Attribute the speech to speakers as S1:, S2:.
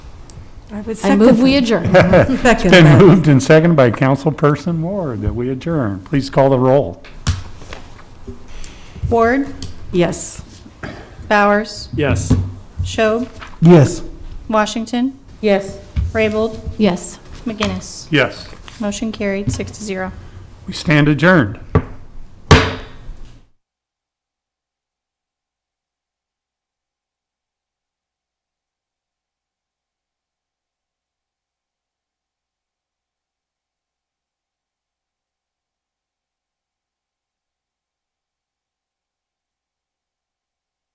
S1: I would
S2: I
S1: second
S2: move we adjourn.
S1: Second
S3: Been
S1: that.
S3: moved and seconded by Councilperson Ward that we adjourn. Please call the roll.
S4: Ward,
S1: Yes.
S4: Bowers,
S3: Yes.
S4: Schob,
S3: Yes.
S4: Washington,
S1: Yes.
S4: Raybold,
S2: Yes.
S4: McGinnis.
S3: Yes.
S4: Motion carried, six to zero.
S3: We stand adjourned.